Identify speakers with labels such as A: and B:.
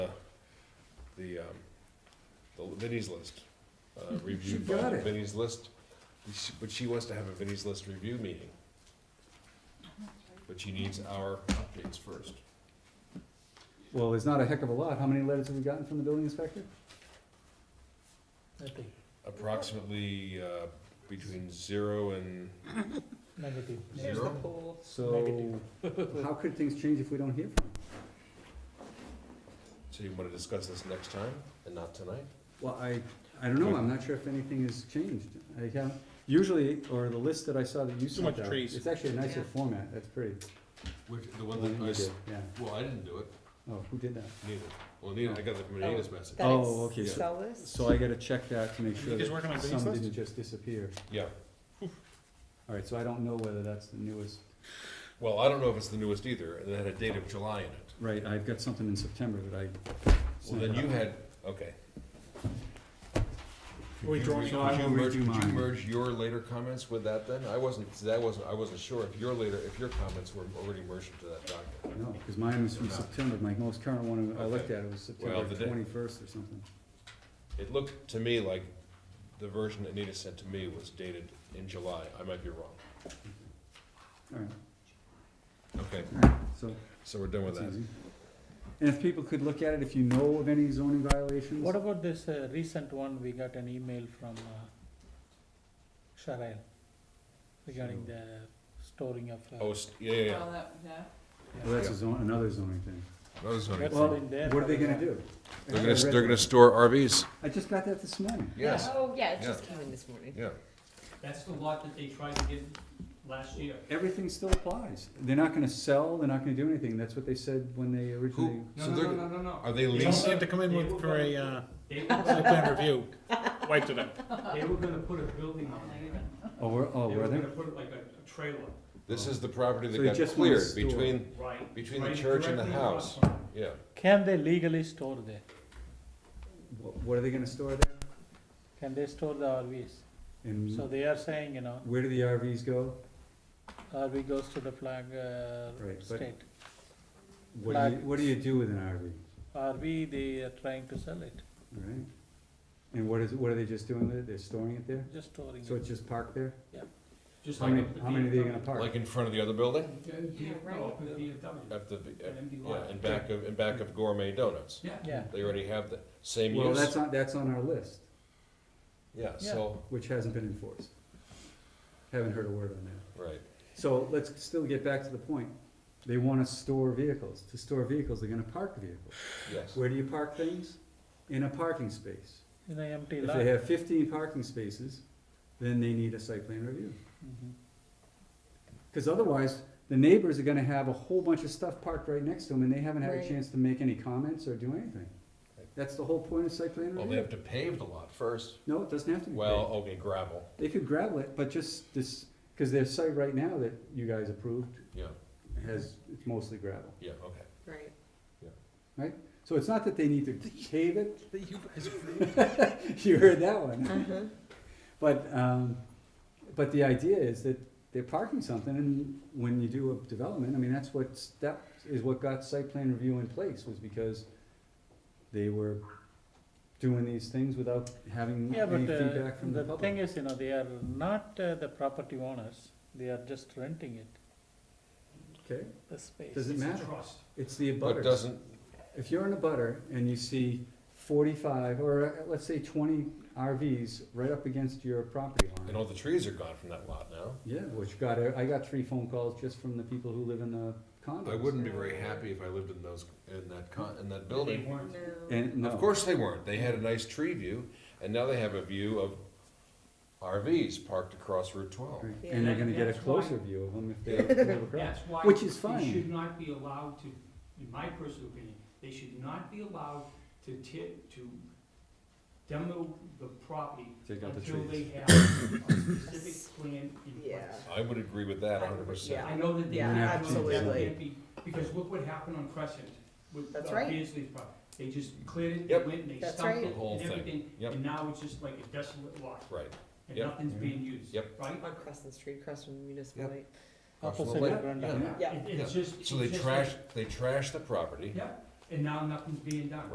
A: the, um, the Vinnie's list, uh, reviewed
B: Hmm, got
A: by
B: it.
A: Vinnie's list. She- But she wants to have a Vinnie's list review meeting. But she needs our updates first.
B: Well, there's not a heck of a lot. How many letters have we gotten from the building inspector?
C: Nothing,
A: Approximately, uh, between zero and,
C: negative.
A: There's the Zero?
C: pool.
B: So, how could things change if we don't hear from him?
A: so you wanna discuss this next time and not tonight?
B: Well, I, I don't know. I'm not sure if anything has changed. I have, usually, or the list that I saw that you sent out.
D: much trees.
B: It's actually a nicer
E: Yeah.
B: format. That's pretty.
A: Which, the one
B: The one
A: that
B: that
A: I,
B: you
A: s-
B: did, Yeah.
A: well, I didn't do it,
B: Oh, who did that?
A: neither. Well, neither, I got it from Anita's message.
E: That it's
B: Oh, okay, so-
E: sell this?
B: So I gotta check that to make
D: You
B: sure
D: guys working on
B: that
D: Vinnie's
B: some
D: list?
B: didn't just disappear.
A: Yeah,
B: All right, so I don't know whether that's the newest.
A: well, I don't know if it's the newest either, and it had a date of July in it.
B: Right, I've got something in September that I.
A: Well,
B: sent
A: then you
B: out.
A: had, okay. Could
D: Are we
A: you-
D: drawing
A: could
B: on?
A: you
B: I will
A: merge-
B: redo
A: Could you
B: mine.
A: merge your later comments with that then? I wasn't, see, that wasn't, I wasn't sure if your later, if your comments were already merged into that document.
B: No, cause mine was from September. My most current one I looked
A: Okay.
B: at, it was
A: Well,
B: September
A: the day-
B: twenty-first or something.
A: It looked to me like the version that Anita sent to me was dated in July. I might be wrong.
B: All right,
A: Okay,
B: all right, so.
A: so we're done with
B: That's
A: that.
B: easy. And if people could look at it, if you know of any zoning violations,
C: What about this uh, recent one, we got an email from uh, Sharail regarding the storing of. uh,
A: Oh, s- yeah, yeah, yeah.
E: Well, that- yeah.
B: well, that's a zone, another zoning thing.
A: That was funny.
C: That's
B: Well,
C: been there.
B: What are they
C: for a
B: gonna
C: while.
B: do?
A: They're
B: I
A: gonna,
B: read
A: they're
B: that.
A: gonna store RVs?
B: I just got that this morning.
A: Yes,
E: Oh, yeah, it just
A: Yeah.
E: came in this morning.
A: yeah.
F: That's the lot that they tried to get last year.
B: Everything still applies. They're not gonna sell, they're not gonna do anything. That's what they said when they originally.
F: No,
A: So
F: no,
A: they're-
F: no, no, no, no.
A: Are they
D: You don't
A: leasing?
D: have to come in with, for a, uh,
F: They were,
D: site
F: gonna-
D: plan review, wiped it out.
F: they were gonna put a building on it.
B: Oh, were, oh,
F: They
B: were
F: were
B: they?
F: gonna put like a a trailer,
A: This is the property
B: So you
A: that got
B: just wanna
A: cleared
B: store.
A: between,
F: right?
A: between the
F: right
A: church and the
F: directly across
A: house.
F: from it.
A: Yeah.
C: Can they legally store there?
B: Wh- What are they gonna store there?
C: Can they store the RVs?
D: Mm.
C: So
B: And
C: they are saying, you know,
B: where do the RVs go?
C: RV goes to the flag uh,
B: Right, but-
C: state.
B: What do you,
C: Like-
B: what do you do with an RV,
C: RV, they are trying to sell it,
B: All right? And what is, what are they just doing with it? They're storing it there?
C: just storing
B: So
C: it.
B: it's just parked there?
F: Just
B: How
F: like
B: many,
F: up at
B: how many are they gonna
F: BMW.
B: park?
A: Like in front of the other building?
F: Yeah,
E: Yeah, right.
F: no, up at BMW,
A: At the,
F: an empty
A: yeah,
F: lot.
A: in back of, in back of Gourmet Donuts.
F: Yeah.
C: Yeah,
A: They already have the same
B: Well, that's
A: use.
B: on, that's on our list,
A: Yeah, so,
B: which hasn't been enforced. Haven't heard a word on that.
A: right.
B: So let's still get back to the point. They want to store vehicles. To store vehicles, they're gonna park vehicles.
A: Yes.
B: Where do you park things? In a parking space.
C: in an empty
B: If
C: lot.
B: they have fifteen parking spaces, then they need a site plan review.
C: Mhm.
B: Cause otherwise, the neighbors are gonna have a whole bunch of stuff parked right next to them and they haven't had a
E: Right.
B: chance to make any comments or do anything. That's the whole point of site plan
A: Well, they
B: review.
A: have to pave the lot first.
B: No, it doesn't have to be.
A: Well, okay, gravel,
B: They could gravel it, but just this, cause their site right now that you guys approved
A: yeah,
B: has, it's mostly gravel.
A: yeah, okay.
E: Right.
B: So it's not that they need to pave it. You heard that one.
E: Uh-huh.
B: But, um, but the idea is that they're parking something and when you do a development, I mean, that's what, that is what got site plan review in place was because they were doing these things without having
C: Yeah,
B: any
C: but uh,
B: feedback from the
C: the thing
B: public.
C: is, you know, they are not uh, the property owners, they are just renting it,
B: Okay,
C: the space.
B: doesn't
F: It's a
B: matter.
F: trust.
B: It's the
A: But
B: abutters.
A: doesn't,
B: If you're in a butter and you see forty-five or uh, let's say twenty RVs right up against your property line.
A: and all the trees are gone from that lot now.
B: Yeah, which got, I got three phone calls just from the people who live in the condos.
A: I wouldn't be very happy if I lived in those, in that con, in that
F: They
A: building.
F: weren't,
B: And, no.
A: Of course they weren't. They had a nice tree view, and now they have a view of RVs parked across Route twelve.
B: Right, And they're gonna get a
F: That's
B: closer
F: why-
B: view of them if they live across.
F: that's why.
B: Which is
F: They
B: fine.
F: should not be allowed to, in my personal opinion, they should not be allowed to ti- to demo the property
B: Take out the
F: until they
B: trees.
F: have a specific plan in place.
E: Yeah.
A: I would agree with that hundred percent.
E: Yeah.
F: I know that they
E: Yeah,
F: can't, do that
E: absolutely.
F: can't be, because look what happened on Crescent with
E: That's
F: uh,
E: right.
F: Beasley's property. They just cleared it, they
A: Yep.
F: went and they
E: That's
F: stumped
E: right.
F: it
A: The whole
F: and
A: thing.
F: everything,
A: Yep.
F: and now it's just like a desolate lot,
A: Right.
F: and
A: Yep.
F: nothing's being used, right?
A: Yep.
E: On Crescent Street, across from the municipal
A: Yep.
E: light.
C: Opposite
A: Absolutely.
C: Brenda.
A: Yeah.
E: Yeah.
F: It- It's just.
A: So they
F: it's just like-
A: trash, they trash the property.
F: Yep, and now nothing's being done.